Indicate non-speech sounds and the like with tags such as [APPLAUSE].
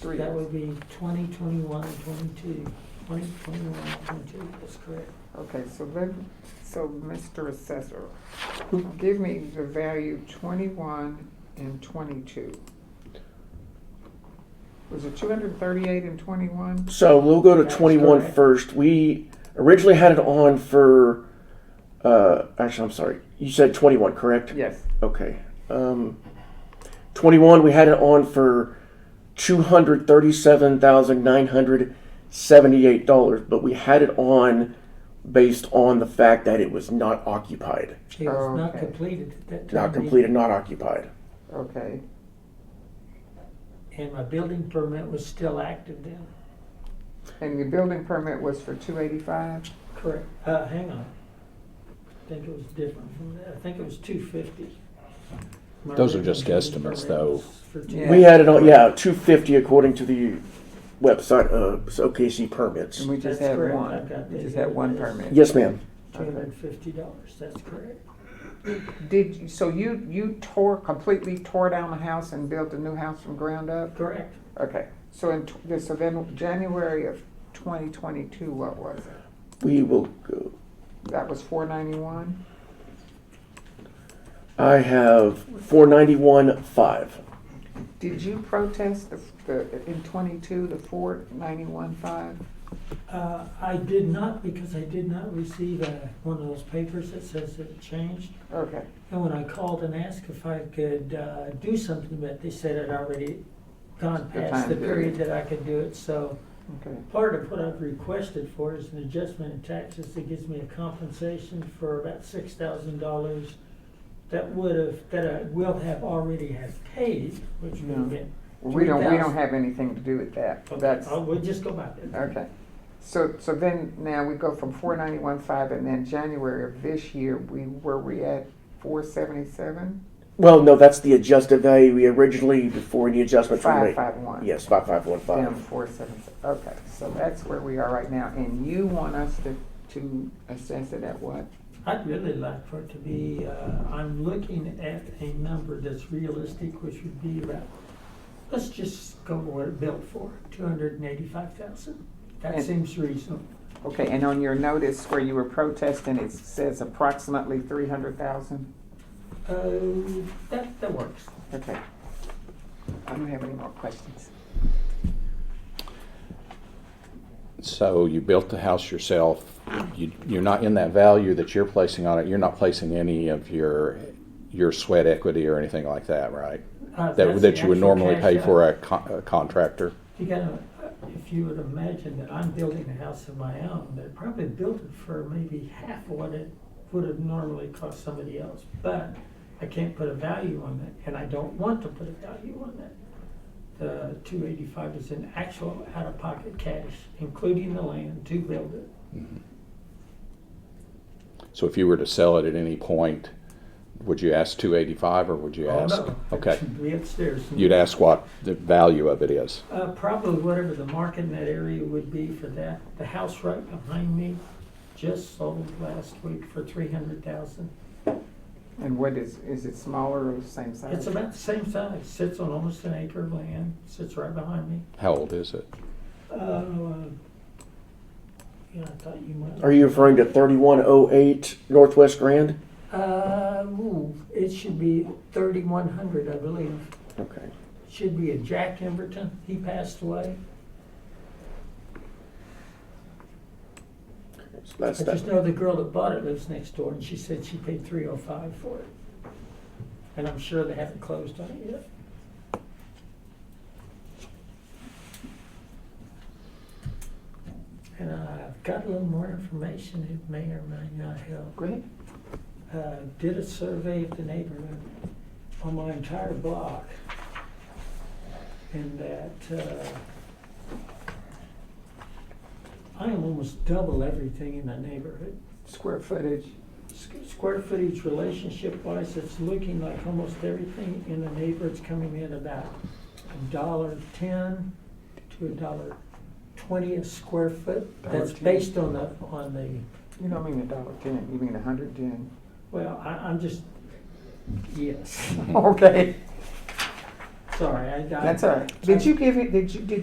Three. That would be twenty, twenty-one, and twenty-two. Twenty, twenty-one, and twenty-two, that's correct. Okay, so let, so Mr. Assessor, give me the value twenty-one and twenty-two. Was it two hundred thirty-eight and twenty-one? So we'll go to That's 21 right. first. We originally had it on for. Uh, actually, I'm sorry. You said 21, correct? Yes, Okay. Um, 21, we had it on for $237,978, but we had it on based on the fact that it was not occupied. It was not Okay. completed at that time. Not completed, not occupied. okay, And my building permit was still active then. and the building permit was for two eighty-five? Correct. Uh, hang on. I think it was different from that. I think it was two fifty. Those are just guesstimates, though. Yeah. We had it on, yeah, 250 according to the website uh, of OKC permits. And we just That's had correct. one, I've got we the- just had one permit? Yes, ma'am. Two hundred and fifty dollars, that's correct. Did, you- so you, you tore, completely tore down the house and built a new house from ground up? Correct. Okay, so in, tw- so then January of twenty twenty-two, what was it? We will go. That was four ninety-one? I have four ninety one five. Did you protest the, the, in twenty-two, the four ninety-one five? Uh, I did not, because I did not receive a, one of those papers that says that it changed. Okay, And when I called and asked if I could, uh, do something, but they said it already gone The past time the period. period that I could do it, so. okay, Part of what I've requested for is an adjustment in taxes that gives me a compensation for about six thousand dollars that would have, that I will have already have paid, which would No. have been. we don't, we don't 3,000. have anything to do with that, Okay, Oh. that's, I'll- we'll just go back there. okay. So, so then, now we go from four ninety-one five, and then January of this year, we, were we at four seventy-seven? Well, no, that's the adjusted value we originally before any adjustments were Five made. five one? Yes, five five one Down five. four seven, okay, so that's where we are right now, and you want us to, to assess it at what? I'd really like for it to be, uh, I'm looking at a number that's realistic, which would be about, let's just go with what it built for, two hundred and eighty-five thousand. That And- seems reasonable. Okay, and on your notice where you were protesting, it says approximately three hundred thousand? Uh, that, that works. Okay. I don't have any more questions. So you built the house yourself. You, you're not in that value that you're placing on it. You're not placing any of your your sweat equity or anything like that, right? Uh, That that's that the you would actual normally cash pay out. for a, con- a contractor. You gotta, uh, if you would imagine that I'm building a house of my own, they probably built it for maybe half of what it would have normally cost somebody else. But I can't put a value on that, and I don't want to put a value on that. The two eighty-five is in actual out-of-pocket cash, including the land to build it. So if you were to sell it at any point, would you ask 285 or would you Oh, ask? no, Okay. it should Be upstairs. You'd ask what the value of it is. Uh, probably whatever the market in that area would be for that. The house right behind me just sold last week for three hundred thousand. And what is, is it smaller or the same size? It's about the same size, sits on almost an acre of land, sits right behind me. How old is it? Uh, Yeah, I thought you might. Are you referring to thirty one oh eight Northwest Grand? Uh, ooh, it should be thirty-one hundred, I believe. Okay. Should be a Jack Emberton, he passed away. So that's I just that. know the girl that bought it lives next door, and she said she paid three oh five for it. And I'm sure they haven't closed on it yet. And I've got a little more information, it may or may not help. Great. Uh, Did a survey of the neighborhood on my entire block. And that, uh, I am almost double everything in the neighborhood. Square footage. Squ- Square footage relationship wise, it's looking like almost everything in the neighborhood's coming in about a dollar ten to a dollar twenty a square foot. That's $1.10. based on the, on the, You don't mean a dollar ten, you mean a hundred [LAUGHS] ten. well, I, I'm just, yes. Okay. [LAUGHS] sorry, I got. That's all right. Did you give it, did you, did